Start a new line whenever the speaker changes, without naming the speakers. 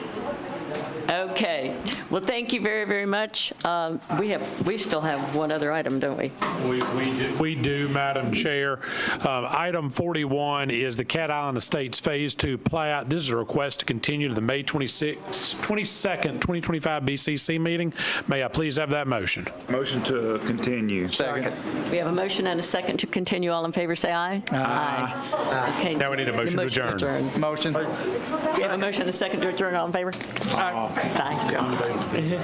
Okay. Well, thank you very, very much. Um, We have, we still have one other item, don't we?
We we do- we do, Madam Chair. Uh, Item 41 is the Cat Island Estates Phase 2 plat. This is a request to continue to the May 26 22nd, 2025 BCC meeting. May I please have that motion?
Motion to continue.
Second.
We have a motion and a second to continue. All in favor, say aye. Aye. Okay.
Now we need a
The
motion to adjourn.
adjourns.
Motion.
We have a motion and a second to adjourn. All in favor? Aye.